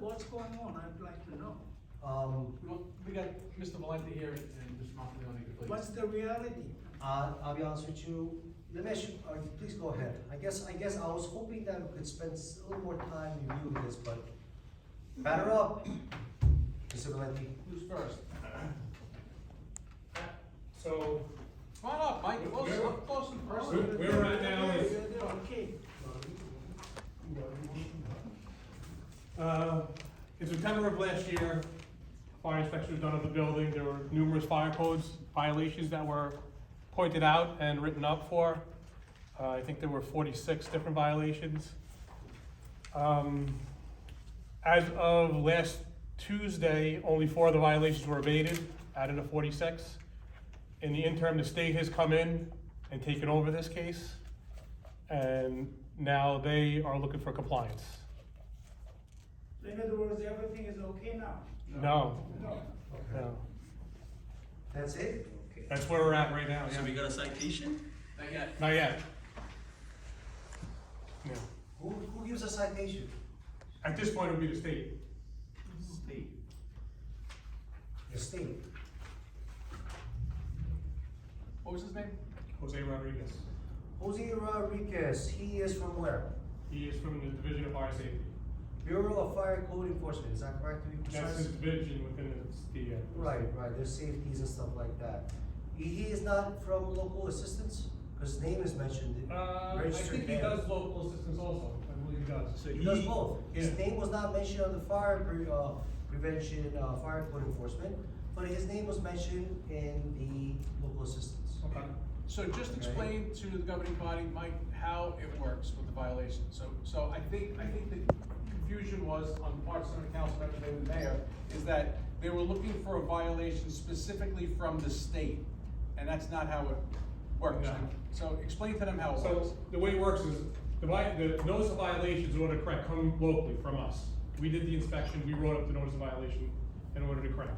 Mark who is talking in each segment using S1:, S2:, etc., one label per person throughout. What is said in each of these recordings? S1: what's going on, I'd like to know.
S2: Um,
S3: We want- We got Mr. Valente here and Mr. Montanelli, please.
S1: What's the reality?
S2: I, uh, I'll be honest with you, Ramesh, uh, please go ahead. I guess, I guess I was hoping that we could spend s- a little more time reviewing this, but batter up, Mr. Valenti.
S3: Who's first?
S4: So,
S3: Come on up, Mike, close,
S4: Where-
S3: up close and
S4: Where-
S3: personal.
S4: where we're at now is-
S1: Yeah, yeah, Okay.
S4: uh, in September of last year, fire inspection was done of the building, there were numerous fire codes violations that were pointed out and written up for. Uh, I think there were forty-six different violations. Um, as of last Tuesday, only four of the violations were abated, out of the forty-six. In the interim, the state has come in and taken over this case, and now they are looking for compliance.
S1: So In other words, everything is okay now?
S4: No,
S1: No.
S4: no.
S2: That's it?
S4: That's where we're at right now,
S5: So we
S4: yeah.
S5: got a citation?
S3: Not yet.
S4: Not yet. No.
S2: Who, who gives a citation?
S4: At this point, it would be the state.
S3: Steve.
S2: The state.
S3: What was his name?
S4: Jose Rodriguez.
S2: Jose Rodriguez, he is from where?
S4: He is from the Division of Fire Safety.
S2: Bureau of Fire Code Enforcement, is that correct to be
S4: That's his
S2: precise?
S4: division within the, the, uh.
S2: Right, right, there's safeties and stuff like that. He, he is not from local assistance, cause his name is mentioned.
S4: Uh, I
S2: registered
S4: think he
S2: there.
S4: does local assistance also, I believe he does.
S5: So
S2: He does
S5: he-
S2: both.
S4: yeah.
S2: His name was not mentioned on the fire pre- uh, prevention, uh, fire code enforcement, but his name was mentioned in the local assistance.
S4: Okay.
S3: So just
S2: Okay.
S3: explain to the governing body, Mike, how it works with the violation. So, so I think, I think the confusion was on the part of some of the council members, maybe the mayor, is that they were looking for a violation specifically from the state, and that's not how it works.
S4: No.
S3: So explain to them how it works.
S4: So the way it works is, the vi- the notice of violations in order to correct come locally from us. We did the inspection, we wrote up the notice of violation in order to correct.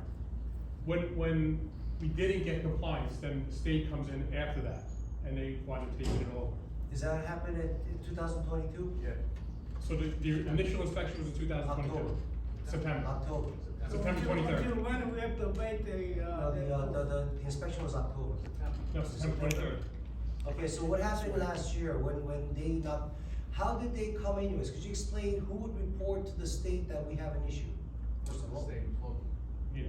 S4: When, when we didn't get compliance, then the state comes in after that, and they want to take it over.
S2: Does that happen in two thousand twenty-two?
S3: Yeah.
S4: So the, the initial inspection was in two thousand
S2: October.
S4: twenty-two, September.
S2: October.
S4: September
S1: So until-
S4: 23rd.
S1: Until when we have to wait the, uh?
S2: No, the, uh, the, the the inspection was October.
S4: No, September twenty-third.
S2: Okay, so what happened last year when, when they not, how did they come anyways? Could you explain who would report to the state that we have an issue? First of all.
S4: Yeah.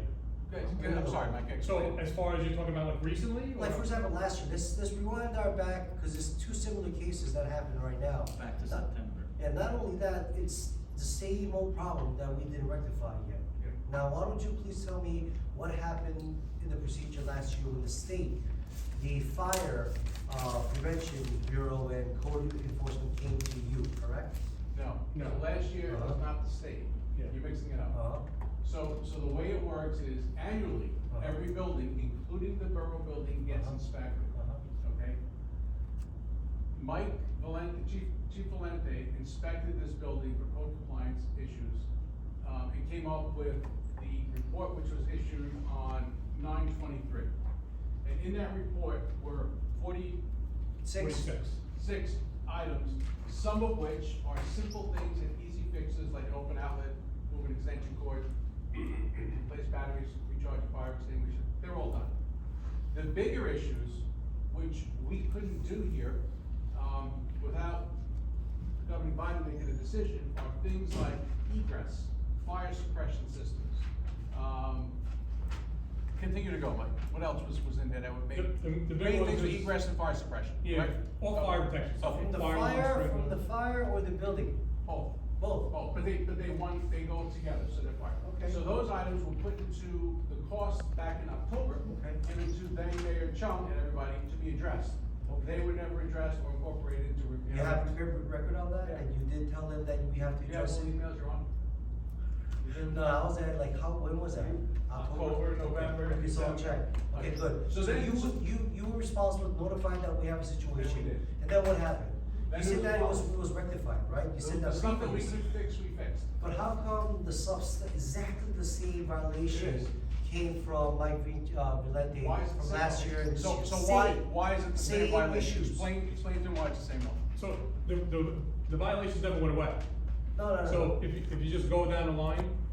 S3: Good, good, I'm sorry, Mike,
S4: So
S3: explain.
S4: as far as you're talking about like recently? or-
S2: Like for example, last year, this, this rewind our back, because there's two similar cases that happened right now.
S5: Back to
S2: Not-
S5: September.
S2: And not only that, it's the same old problem that we didn't rectify yet. Now, why don't you please tell me what happened in the procedure last year when the state, the fire, uh, prevention bureau and code enforcement came to you, correct?
S3: No,
S4: No.
S3: so last year it was
S2: Uh-huh.
S3: not the state.
S4: Yeah.
S3: You're mixing it up.
S2: Uh,
S3: So, so the way it works is annually,
S2: Uh-huh.
S3: every building, including the borough building, gets
S2: Uh-huh.
S3: inspected,
S2: Uh-huh.
S3: okay? Mike Valente, Chief, Chief Valente inspected this building for code compliance issues, um, and came up with the report which was issued on nine twenty-three. And in that report were forty
S2: six,
S4: Forty-six.
S3: six items, some of which are simple things and easy fixes like an open outlet, move an extension cord, replace batteries, recharge a fire extinguisher, they're all done. The bigger issues, which we couldn't do here, um, without the governing body making a decision, are things like egress, fire suppression systems. Um, Continue to go, Mike, what else was, was in there that would make,
S4: The- the- the big
S3: main
S4: one
S3: things were
S4: was-
S3: egress and fire suppression,
S4: Yeah,
S3: right?
S4: all fire protection.
S3: Okay.
S2: from the
S4: Fire alarms,
S2: fire,
S4: red
S2: from the
S4: lights.
S2: fire or the building?
S3: Both,
S2: Both?
S3: both, Oh. but they, but they one, they go together, so they're part.
S2: Okay.
S3: So those items were put into the cost back in October,
S2: Okay.
S3: given to then Mayor Chung and everybody to be addressed. They were never addressed or incorporated into review.
S2: You have a clear record on that, and you did tell them that we have to
S3: You have
S2: address
S3: all
S2: it?
S3: the emails you're on?
S2: No, I was at like, how, when was that?
S3: October, November,
S2: Okay, so I'll check.
S3: December.
S2: Okay,
S3: Okay.
S2: good.
S3: So
S2: So
S3: then-
S2: you, you, you were responsible notifying that we have a
S3: Then we
S2: situation.
S3: did.
S2: And then what happened?
S3: Then
S2: You
S3: it
S2: said
S3: was
S2: that it was,
S3: followed.
S2: it was rectified, right? You said
S3: The
S2: that.
S3: stuff that we
S2: fixed.
S3: could fix, we fixed.
S2: But how come the subs, exactly the same
S3: It
S2: violation
S3: is.
S2: came from Mike Vig- uh, Valente
S3: Why is it the
S2: from
S3: same?
S2: last year and this
S3: So,
S2: year?
S3: so why,
S2: Same.
S3: why is it the same
S2: Same
S3: violation?
S2: issues.
S3: Explain, explain to them why it's the same one.
S4: So the, the, the violations never went away.
S2: No, no, no.
S4: So if you, if you just go down the line,